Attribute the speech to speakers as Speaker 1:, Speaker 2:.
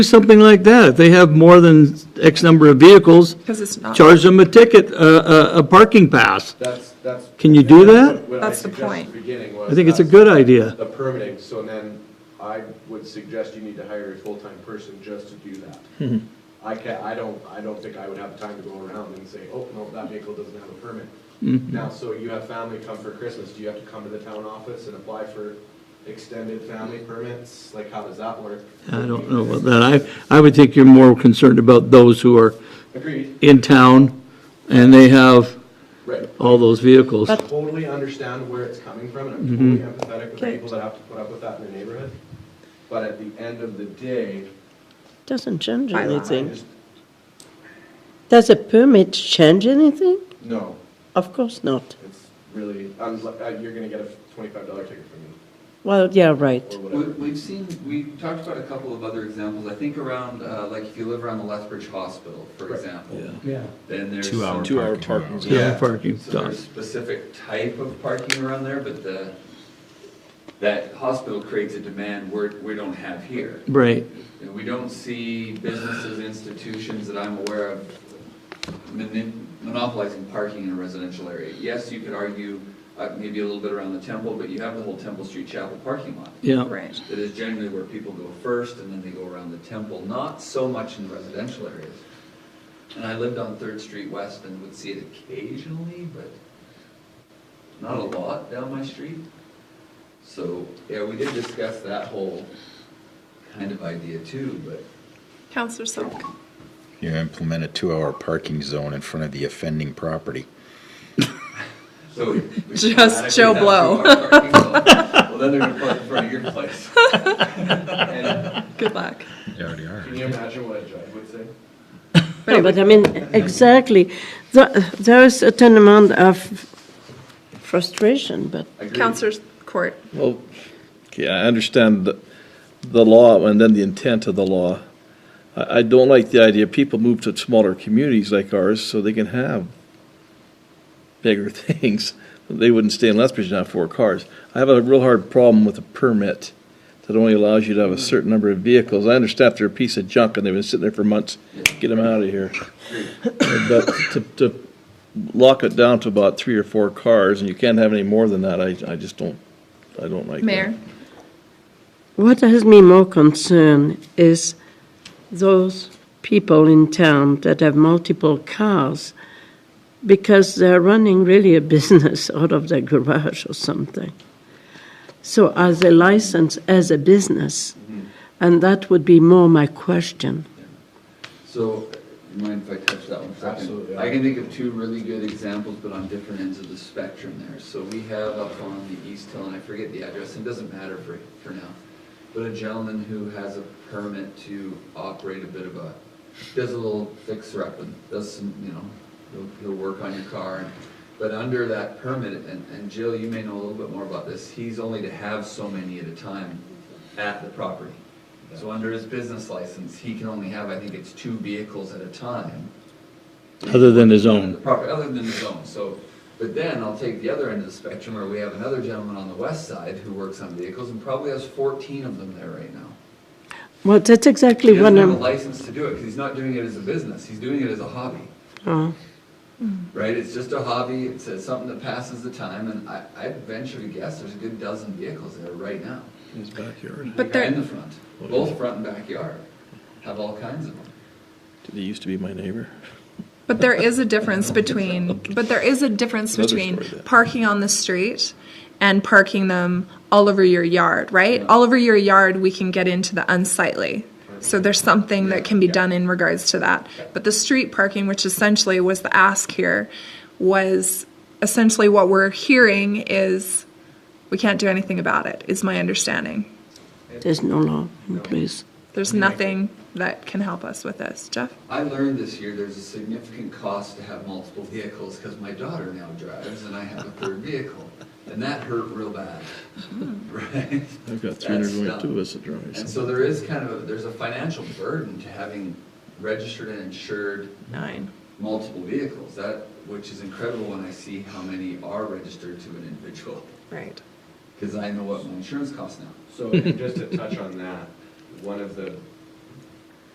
Speaker 1: something like that. If they have more than X number of vehicles,
Speaker 2: Because it's not.
Speaker 1: charge them a ticket, a, a, a parking pass.
Speaker 3: That's, that's.
Speaker 1: Can you do that?
Speaker 3: What I
Speaker 2: That's the
Speaker 3: suggested at
Speaker 2: point.
Speaker 3: the beginning was.
Speaker 1: I think it's a
Speaker 3: that's
Speaker 1: good idea.
Speaker 3: The permitting, so then I would suggest you need to hire a full-time person just to do
Speaker 1: Mm-hmm.
Speaker 3: that. I can't, I don't, I don't think I would have time to go around and say, oh, no, that vehicle doesn't have a permit.
Speaker 1: Mm-hmm.
Speaker 3: Now, so you have family come for Christmas, do you have to come to the town office and apply for extended family permits? Like, how does that work?
Speaker 1: I don't know about that. I, I would think you're more concerned about those who are
Speaker 3: Agreed,
Speaker 1: in town and they have
Speaker 3: right.
Speaker 1: all those vehicles.
Speaker 3: I totally understand where it's coming from, and I'm totally empathetic with the people that have to put up with that in their neighborhood. But at the end of the day,
Speaker 4: Doesn't change
Speaker 2: By law.
Speaker 3: I
Speaker 4: anything.
Speaker 3: just,
Speaker 4: Does a permit change anything?
Speaker 3: no,
Speaker 4: Of course not.
Speaker 3: it's really, I'm, uh, you're gonna get a twenty-five dollar ticket from me,
Speaker 4: Well, yeah, right.
Speaker 3: or
Speaker 5: We-
Speaker 3: whatever.
Speaker 5: We've seen, we talked about a couple of other examples, I think around, uh, like if you live around the Lethbridge Hospital, for
Speaker 3: Right.
Speaker 5: example. Yeah. Then there's. some-
Speaker 6: Two-hour parking.
Speaker 1: Yeah, parking
Speaker 5: So there's
Speaker 1: stuff.
Speaker 5: specific type of parking around there, but the, that hospital creates a demand we're, we don't have here.
Speaker 1: Right.
Speaker 5: And we don't see businesses, institutions that I'm aware of moni- monopolizing parking in a residential area. Yes, you could argue, uh, maybe a little bit around the temple, but you have the whole Temple Street Chapel parking lot.
Speaker 1: Yeah.
Speaker 2: Right.
Speaker 5: That is generally where people go first and then they go around the temple, not so much in residential areas. And I lived on Third Street West and would see it occasionally, but not a lot down my street. So, yeah, we did discuss that whole kind of idea too, but
Speaker 2: Counselor Silk.
Speaker 6: You implement a two-hour parking zone in front of the offending property.
Speaker 5: so. we- we
Speaker 2: Just
Speaker 5: automatically
Speaker 2: Joe
Speaker 5: have
Speaker 2: Blow.
Speaker 5: two-hour parking zone. Well, then they're gonna park in front of your place.
Speaker 3: And
Speaker 2: Good luck.
Speaker 6: They already are.
Speaker 3: can you imagine what a judge would say?
Speaker 2: But
Speaker 4: No,
Speaker 2: it
Speaker 4: but I mean, exactly. There there is a certain amount of frustration, but
Speaker 2: would- Counselor's Court.
Speaker 7: Well, okay, I understand the, the law and then the intent of the law. I, I don't like the idea, people move to smaller communities like ours so they can have bigger things. They wouldn't stay in Lethbridge and have four cars. I have a real hard problem with a permit that only allows you to have a certain number of vehicles. I understand if they're a piece of junk and they've been sitting there for months, get them out of here. But to, to lock it down to about three or four cars and you can't have any more than that, I, I just don't, I don't like that.
Speaker 2: Mayor.
Speaker 4: what has me more concerned is those people in town that have multiple cars because they're running really a business out of their garage or something. So are they licensed as a business?
Speaker 5: Mm-hmm.
Speaker 4: And that would be more my question.
Speaker 5: So, you mind if I touch that one for a second?
Speaker 3: Absolutely.
Speaker 5: I can think of two really good examples, but on different ends of the spectrum there. So we have up on the East Hill, and I forget the address, it doesn't matter for, for now. But a gentleman who has a permit to operate a bit of a, does a little fixer up and does some, you know, he'll, he'll work on your car. and- But under that permit, and, and Jill, you may know a little bit more about this, he's only to have so many at a time at the property. So under his business license, he can only have, I think it's two vehicles at a time.
Speaker 1: Other than his
Speaker 5: The
Speaker 1: own.
Speaker 5: property, other than his own, so, but then I'll take the other end of the spectrum where we have another gentleman on the west side who works on vehicles and probably has fourteen of them there right now.
Speaker 4: Well, that's
Speaker 5: He
Speaker 4: exactly
Speaker 5: doesn't
Speaker 4: what
Speaker 5: have a
Speaker 4: I'm,
Speaker 5: license to do it because he's not doing it as a business, he's doing it as a hobby,
Speaker 4: oh,
Speaker 5: right? It's just a hobby, it's uh, something that passes the time and I, I venture to guess there's a good dozen vehicles there right now.
Speaker 7: in his backyard.
Speaker 2: But
Speaker 5: In
Speaker 2: there,
Speaker 5: the front, both front and backyard, have all kinds of them.
Speaker 7: They used to be my neighbor.
Speaker 2: but there is a difference between, but there is a difference
Speaker 7: Another
Speaker 2: between
Speaker 7: story there.
Speaker 2: parking on the street and parking them all over your yard, right? All over your yard, we can get into the unsightly. So there's something that can be done in regards to that. But the street parking, which essentially was the ask here, was essentially what we're hearing is we can't do anything about it, is my understanding.
Speaker 4: there's no law in place.
Speaker 2: There's nothing that can help us with this. Jeff?
Speaker 5: I learned this year there's a significant cost to have multiple vehicles because my daughter now drives and I have a third vehicle. And that hurt real bad, right?
Speaker 7: I've got
Speaker 5: That
Speaker 7: 322
Speaker 5: stung.
Speaker 7: as a driver.
Speaker 5: And so there is kind of, a there's a financial burden to having registered and insured
Speaker 2: Nine.
Speaker 5: multiple vehicles. That, which is incredible when I see how many are registered to an individual,
Speaker 2: Right.
Speaker 5: because I know what my insurance costs now.
Speaker 3: So, and just to touch on that, one of the